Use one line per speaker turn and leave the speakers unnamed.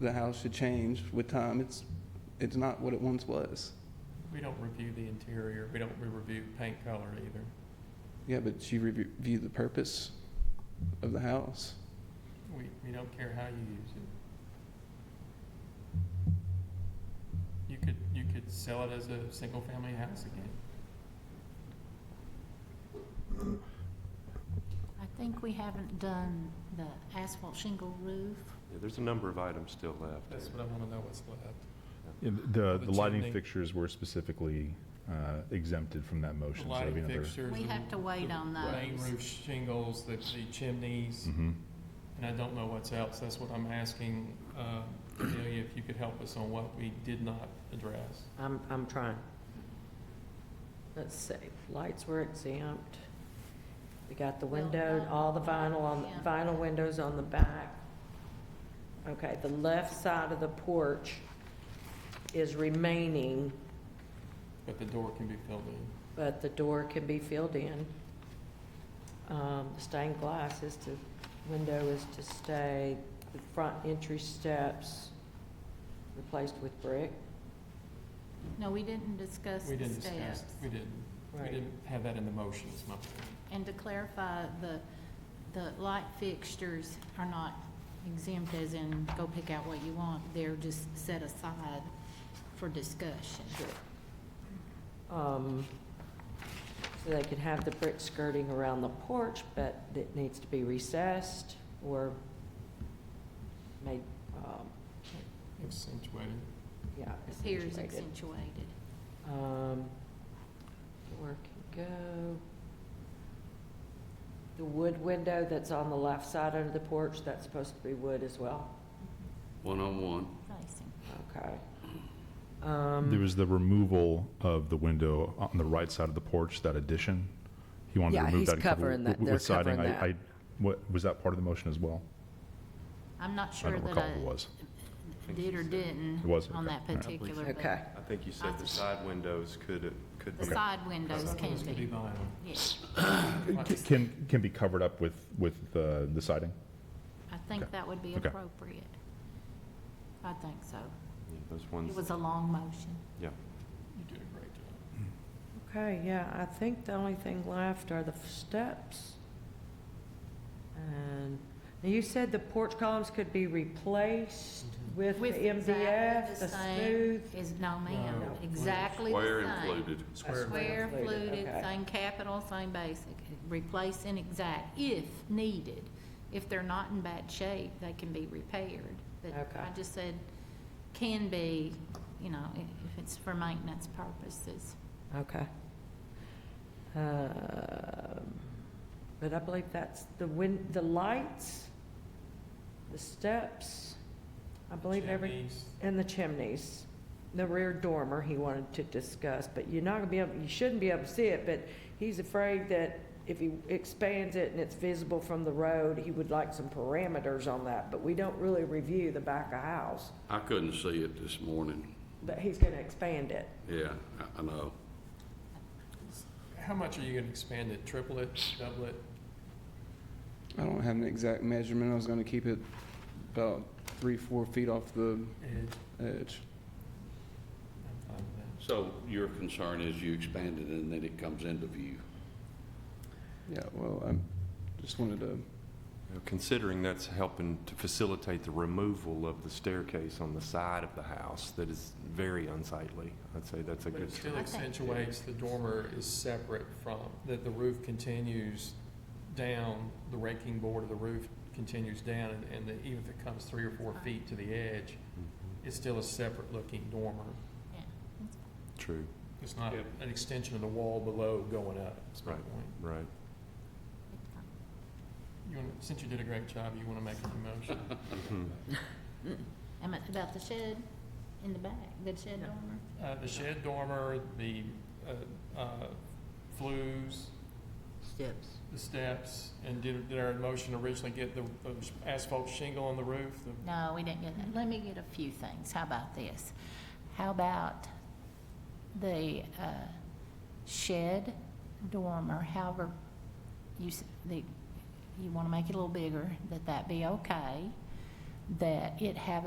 the house should change with time. It's, it's not what it once was.
We don't review the interior, we don't re- review paint color either.
Yeah, but you review the purpose of the house.
We, we don't care how you use it. You could, you could sell it as a single-family house again.
I think we haven't done the asphalt shingle roof.
Yeah, there's a number of items still left.
That's what I wanna know what's left.
Yeah, The,
The
the lighting
chimney.
fixtures were specifically uh, exempted from that motion.
The
so that'd be
lighting
another-
fixtures.
We
the-
have to wait
the
on
Main
those.
roof shingles, the, the chimneys,
Mhm.
and I don't know what's else. That's what I'm asking, uh, Amelia, if you could help us on what we did not address.
I'm, I'm trying. Let's see, lights were exempt. We got the
Well,
window,
not-
all the vinyl on,
Yeah.
vinyl windows on the back. Okay, the left side of the porch is remaining,
But the door can be filled in.
but the door can be filled in. Um, the Stained glass is to, window is to stay, the front entry steps replaced with brick.
No, we didn't discuss
We
the
didn't discuss,
steps.
we didn't, we
Right.
didn't have that in the motion, is my point.
And to clarify, the, the light fixtures are not exempt as in go pick out what you want. They're just set aside for discussion.
um, So they could have the brick skirting around the porch, but it needs to be recessed or made, um,
Accentuated.
yeah.
Appears
accentuated.
accentuated.
Um, Where can go? The wood window that's on the left side under the porch, that's supposed to be wood as well?
one-on-one.
Facing.
Okay.
There
Um,
was the removal of the window on the right side of the porch, that addition. He wanted to
Yeah,
remove
he's
that. and cover
covering that.
wi-
They're
with siding.
covering
I- I- What, was that part of the motion as well?
I'm not
I
sure
don't
that
recall if it
I
was.
did or didn't
It was,
on
okay.
that
All right.
particular,
Okay.
but
I think you said the side windows could, could
the
be
side windows can
Those could be
be.
vinyl.
Yes,
Like
C- Can, can be covered up with, with uh, the siding?
I think
Okay.
that would be
Okay.
appropriate. I think so.
Yeah, Those
It
ones,
was a long motion.
yeah.
You did a great job.
okay, yeah, I think the only thing left are the steps. And now you said the porch columns could be replaced with the
With exactly
MDF,
the
the
same
smooth.
Is, no ma'am,
No.
exactly the
Square
same.
included.
Square
Square fluted,
okay.
same capital, same basic, replace and exact if needed. If they're not in bad shape, they can be repaired. But
Okay.
I just said can be, you know, i- if it's for maintenance purposes.
Okay. Um, But I believe that's the win, the lights, the steps, I believe every,
Chimneys.
and the chimneys. The rear dormer he wanted to discuss, but you're not gonna be able, you shouldn't be able to see it, but he's afraid that if he expands it and it's visible from the road, he would like some parameters on that, but we don't really review the back of house,
I couldn't see it this morning.
but he's gonna expand it.
Yeah, I- I know.
How much are you gonna expand it? Triple it, double it?
I don't have an exact measurement. I was gonna keep it about three, four feet off the
Ed,
edge.
I'm fine with that.
So your concern is you expand it and then it comes into view.
Yeah, well, I just wanted to,
You know, Considering that's helping to facilitate the removal of the staircase on the side of the house that is very unsightly, I'd say that's a
But
good.
it still
Okay.
accentuates, the dormer is separate from, that the roof continues down, the raking board of the roof continues down, and- and the- even if it comes three or four feet to the edge,
mm-hmm,
it's still a separate looking dormer.
Yeah.
True,
It's not
Yep.
an extension of the wall below going up, is my
Right.
point.
right.
You wanna, since you did a great job, you wanna make a new motion?
Mm-hmm.
Mhm.
Am I- About the shed in the back, the shed dormer?
Uh, the shed dormer, the, uh, uh, flues,
Steps.
the steps, and did, did our motion originally get the the asphalt shingle on the roof? The-
No, we didn't get that. Let me get a few things. How about this? How about the uh, shed dormer, however you, s- the, you want to make it a little bigger, that that be okay, that it have a